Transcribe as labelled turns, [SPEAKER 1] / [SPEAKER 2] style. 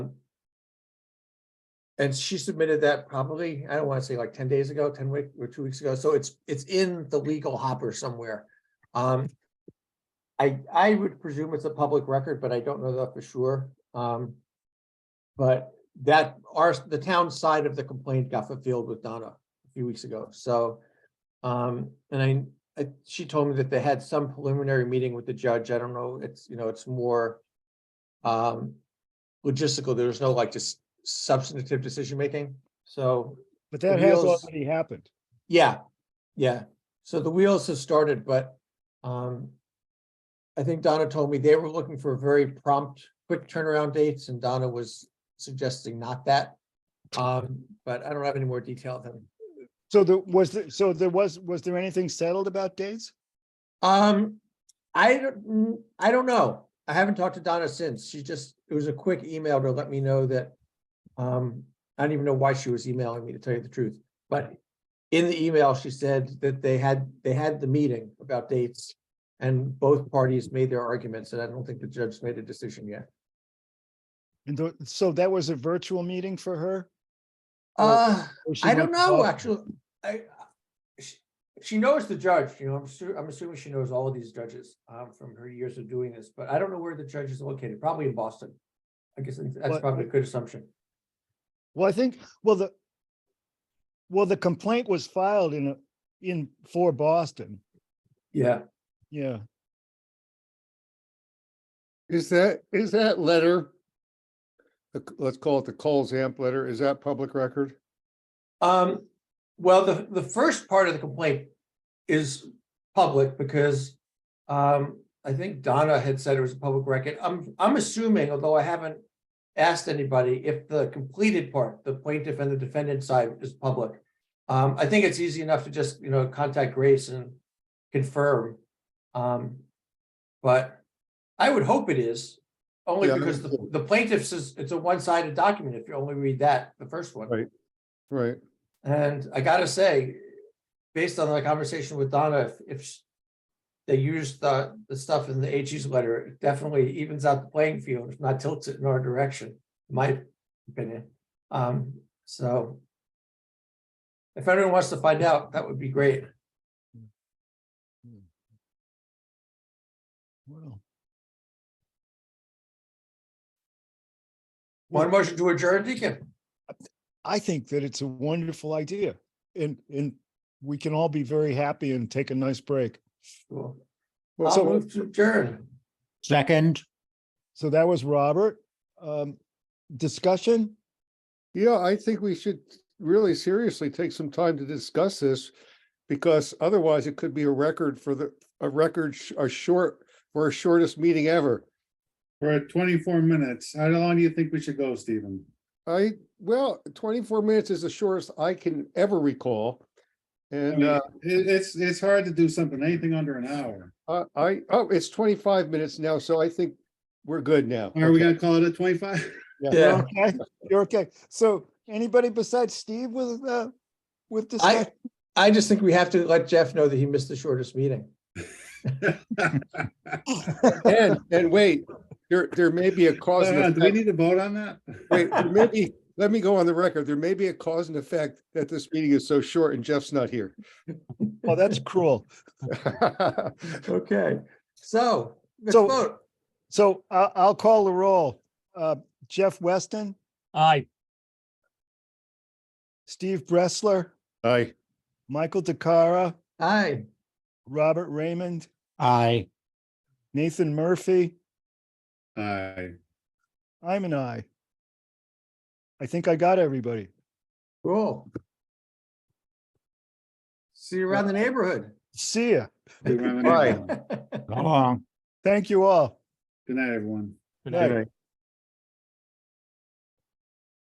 [SPEAKER 1] And she submitted that probably, I don't want to say like ten days ago, ten week or two weeks ago, so it's, it's in the legal hopper somewhere. Um. I, I would presume it's a public record, but I don't know that for sure. Um. But that, our, the town side of the complaint got fulfilled with Donna a few weeks ago, so. Um, and I, I, she told me that they had some preliminary meeting with the judge. I don't know, it's, you know, it's more. Um, logistical, there's no like just substantive decision making, so,
[SPEAKER 2] But that has
[SPEAKER 1] wheels-
[SPEAKER 2] already happened.
[SPEAKER 1] yeah, yeah. So the wheels have started, but, um. I think Donna told me they were looking for very prompt, quick turnaround dates and Donna was suggesting not that. Um, but I don't have any more detail than
[SPEAKER 2] So there was, there- so there was, was there anything settled about dates?
[SPEAKER 1] Um, I don't, mm, I don't know. I haven't talked to Donna since. She just, it was a quick email to let me know that. Um, I don't even know why she was emailing me to tell you the truth, but in the email, she said that they had, they had the meeting about dates. And both parties made their arguments, and I don't think the judge made a decision yet.
[SPEAKER 2] And tho- so that was a virtual meeting for her? Or-
[SPEAKER 1] Uh,
[SPEAKER 2] or she
[SPEAKER 1] I don't
[SPEAKER 2] went
[SPEAKER 1] know,
[SPEAKER 2] out?
[SPEAKER 1] actually, I, she, she knows the judge, you know, I'm sure, I'm assuming she knows all of these judges, um, from her years of doing this, but I don't know where the judge is located, probably in Boston. I guess that's
[SPEAKER 2] What-
[SPEAKER 1] probably a good assumption.
[SPEAKER 2] Well, I think, well, the, well, the complaint was filed in, a in, for Boston.
[SPEAKER 1] Yeah.
[SPEAKER 2] Yeah.
[SPEAKER 3] Is that, is that letter? the c- Let's call it the Coles Amp letter. Is that public record?
[SPEAKER 1] Um, well, the, the first part of the complaint is public because um, I think Donna had said it was a public record. I'm, I'm assuming, although I haven't asked anybody, if the completed part, the plaintiff and the defendant side is public. Um, I think it's easy enough to just, you know, contact Grace and confirm. Um, but I would hope it is, only
[SPEAKER 3] Yeah, I
[SPEAKER 1] because
[SPEAKER 3] would
[SPEAKER 1] the,
[SPEAKER 3] too.
[SPEAKER 1] the plaintiff says it's a one-sided document, if you only read that, the first one.
[SPEAKER 3] Right. Right.
[SPEAKER 1] And I gotta say, based on the conversation with Donna, if- if sh- they use the, the stuff in the AG's letter, it definitely evens out the playing field, if not tilts it in our direction, in my opinion. Um, so if anyone wants to find out, that would be great.
[SPEAKER 2] Wow.
[SPEAKER 1] One motion to adjourn, Deacon.
[SPEAKER 2] I think that it's a wonderful idea and, and we can all be very happy and take a nice break.
[SPEAKER 1] Cool.
[SPEAKER 2] Well,
[SPEAKER 1] I'll
[SPEAKER 2] so,
[SPEAKER 1] move to adjourn.
[SPEAKER 4] Second,
[SPEAKER 2] so that was Robert. Um, discussion?
[SPEAKER 3] Yeah, I think we should really seriously take some time to discuss this because otherwise it could be a record for the, a record, sh- a short, for our shortest meeting ever.
[SPEAKER 5] We're at twenty-four minutes. How long do you think we should go, Stephen?
[SPEAKER 3] I, well, twenty-four minutes is the shortest I can ever recall.
[SPEAKER 5] I
[SPEAKER 3] And
[SPEAKER 5] mean,
[SPEAKER 3] uh,
[SPEAKER 5] It, it's, it's hard to do something, anything under an hour.
[SPEAKER 3] I, I- oh, it's twenty-five minutes now, so I think we're good now.
[SPEAKER 5] Are we
[SPEAKER 3] Okay.
[SPEAKER 5] gonna call it at twenty-five?
[SPEAKER 1] Yeah.
[SPEAKER 2] You're okay? You're okay. So anybody besides Steve with, uh, with discussion?
[SPEAKER 1] I, I just think we have to let Jeff know that he missed the shortest meeting.
[SPEAKER 3] And, and wait, there, there may be a cause and
[SPEAKER 5] Do we
[SPEAKER 3] effect.
[SPEAKER 5] need to vote on that?
[SPEAKER 3] Wait, there may be- let me go on the record. There may be a cause and effect that this meeting is so short and Jeff's not here.
[SPEAKER 2] Oh, that's cruel.
[SPEAKER 1] Okay, so, let's
[SPEAKER 2] So-
[SPEAKER 1] vote.
[SPEAKER 2] So I'll, I'll call the roll. Uh, Jeff Weston,
[SPEAKER 4] aye.
[SPEAKER 2] Steve Bressler,
[SPEAKER 3] Aye.
[SPEAKER 2] Michael DeCara,
[SPEAKER 1] Aye,
[SPEAKER 2] Robert Raymond,
[SPEAKER 4] Aye.
[SPEAKER 2] Nathan Murphy.
[SPEAKER 5] Aye.
[SPEAKER 2] I'm an I. I think I got everybody.
[SPEAKER 1] cool. See you around the neighborhood.
[SPEAKER 2] See ya.
[SPEAKER 5] Do we have any-
[SPEAKER 3] Aye.
[SPEAKER 5] Good
[SPEAKER 4] Go on.
[SPEAKER 2] Thank you all.
[SPEAKER 5] night, everyone.
[SPEAKER 4] Good night.
[SPEAKER 2] Night.